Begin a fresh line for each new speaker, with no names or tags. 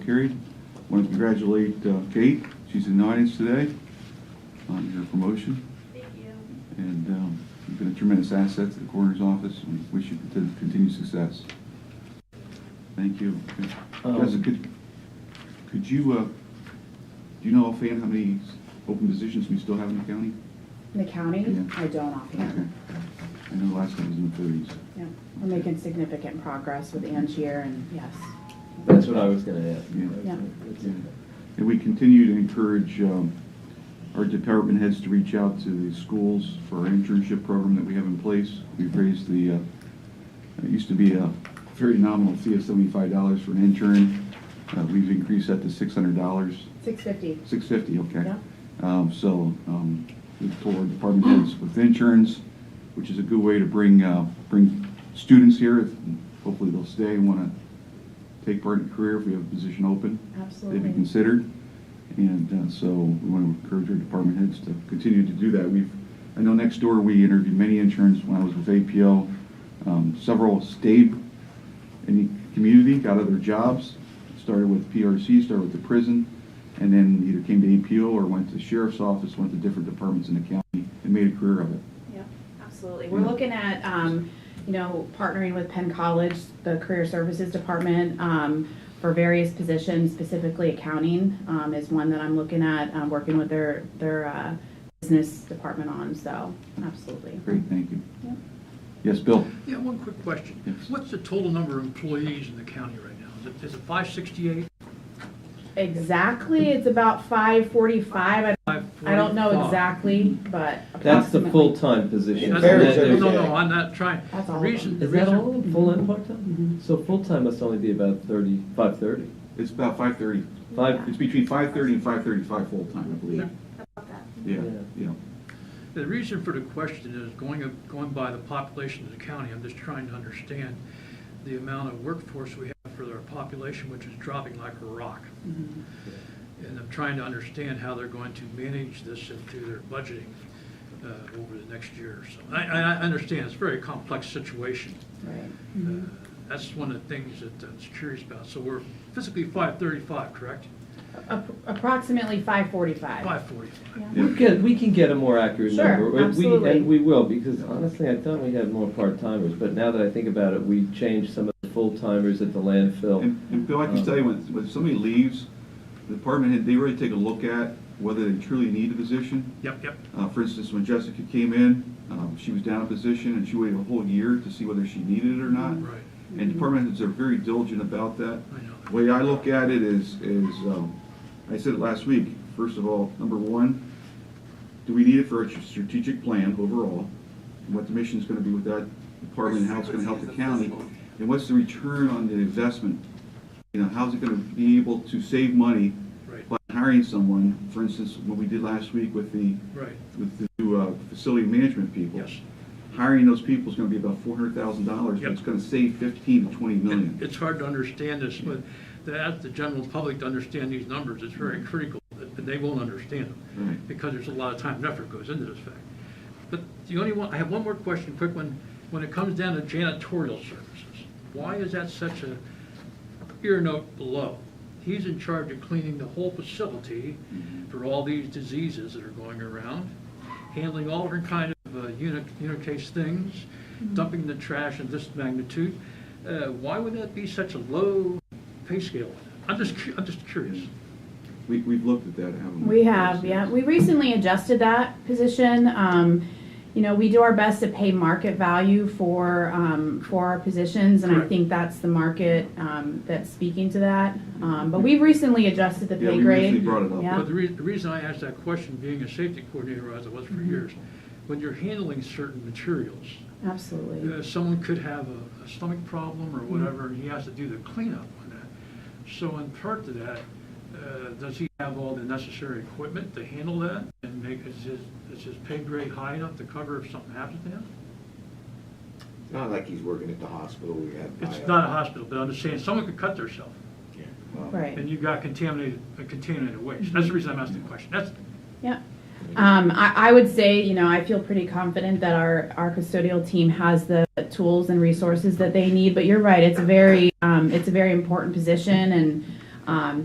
Carried. Want to congratulate uh, Kate, she's in the audience today, on her promotion.
Thank you.
And um, you've been a tremendous asset to the coroner's office, and we wish you conti- continued success. Thank you.
Um,
Guys, could, could you, uh, do you know offhand how many s- open positions we still have in the county?
The county,
Yeah.
I don't
Okay.
offhand.
I know last time was in the thirties.
Yeah, We're making significant progress with Angier and yes.
That's what I was gonna ask.
Yeah.
Yeah.
And we continue to encourage um, our department heads to reach out to the schools for our internship program that we have in place. We've raised the, uh, it used to be a very nominal fee of $75 for an intern. Uh, We've increased that to $600,
Six fifty.
$650, okay?
Yeah.
Um, So um, we've told our department heads with interns, which is a good way to bring, uh, bring students here. Hopefully they'll stay and want to take part in a career if we have a position open they'd be
Absolutely.
considered. And uh, so we want to encourage our department heads to continue to do that. We've, I know next door, we interviewed many interns when I was with APO. Um, Several stayed in the community, got other jobs, started with PRC, started with the prison, and then either came to APO or went to sheriff's office, went to different departments in the county and made a career of it.
Yep, absolutely. We're
Yeah.
looking at, um, you know, partnering with Penn College, the Career Services Department, um, for various positions, specifically accounting, um, is one that I'm looking at, um, working with their, their, uh, business department on, so absolutely.
Great, thank you.
Yep.
Yes, Bill?
Yeah, one quick question.
Yes.
What's the total number of employees in the county right now? Is it- Is it 568?
Exactly, it's about five forty-five. I don't know exactly, but
That's the
approximately.
full-time position.
That's-
Varies
No,
every
no,
day.
no, I'm not trying.
That's
The
all of
reason, the
Is that
reason,
all, full and
Mm-hmm.
part-time? So full-time must only be about thirty-five, thirty.
It's about 5:30.
Five,
It's between 5:30 and 5:35 full-time, I believe.
About that.
Yeah,
Yeah.
yeah.
the reason for the question is going, up- going by the population of the county, I'm just trying to understand the amount of workforce we have for our population, which is dropping like a rock.
Mm-hmm.
And I'm trying to understand how they're going to manage this into their budgeting uh, over the next year or so. I, I I understand, it's a very complex situation.
Right.
Uh, That's one of the things that I was curious about. So we're physically 535, correct?
Ap- Approximately five forty-five.
545.
Yeah.
we get, we can get a more accurate
Sure,
number. We- we-
absolutely.
And we will, because honestly, I thought we had more part-timers, but now that I think about it, we changed some of the full-timers at the landfill.
And, and Bill, I can tell you, when, when somebody leaves, the department head, they really take a look at whether they truly need a position.
Yep, yep.
Uh, for instance, when Jessica came in, um, she was down a position and she waited a whole year to see whether she needed it or not.
Right,
And department heads are very diligent about that.
I know.
The way I look at it is, is, um, I said it last week, first of all, number one, do we need it for a strategic plan overall? And What the mission's gonna be with that department, and how it's gonna help the county? And what's the return on the investment? You know, how's it gonna be able to save money
Right,
by hiring someone? For instance, what we did last week with the,
right,
with the new, uh, facility management people.
yes.
Hiring those people is gonna be about four hundred thousand dollars, but
Yep.
it's gonna save fifteen to twenty million.
It's hard to understand this, but to ask the general public to understand these numbers is very critical, and they won't understand them.
Right.
Because there's a lot of time and effort goes into this fact. But the only one, I have one more question, quick one. When it comes down to janitorial services, why is that such a ear note below? He's in charge of cleaning the whole facility for all these diseases that are going around, handling all different kind of uh, uni- unicase things, dumping the trash in this magnitude. Uh, Why would that be such a low pay scale? I'm just, cu- I'm just curious.
We, we've looked at that, haven't we?
We have, yeah, we recently adjusted that position. Um, you know, we do our best to pay market value for, um, for our positions, and I
Correct.
think that's the market, um, that's speaking to that. Um, but we've recently adjusted the
Yeah,
pay
we recently
grade.
brought it up.
Yeah.
But the rea- the reason I asked that question, being a safety coordinator as I was for years, when you're handling certain materials,
Absolutely.
uh, someone could have a a stomach problem or whatever, and he has to do the cleanup on that. So in part to that, uh, does he have all the necessary equipment to handle that? And make, is his, is his pay grade high enough to cover if something happens to him?
It's not like he's working at the hospital, we have.
It's not a hospital, but I'm just saying, someone could cut themselves,
Right,
and you've got contaminated, uh, contaminated waste. That's the reason I'm asking the question. That's,
yeah. Um, I, I would say, you know, I feel pretty confident that our, our custodial team has the tools and resources that they need, but you're right, it's a very, um, it's a very important position, and Um,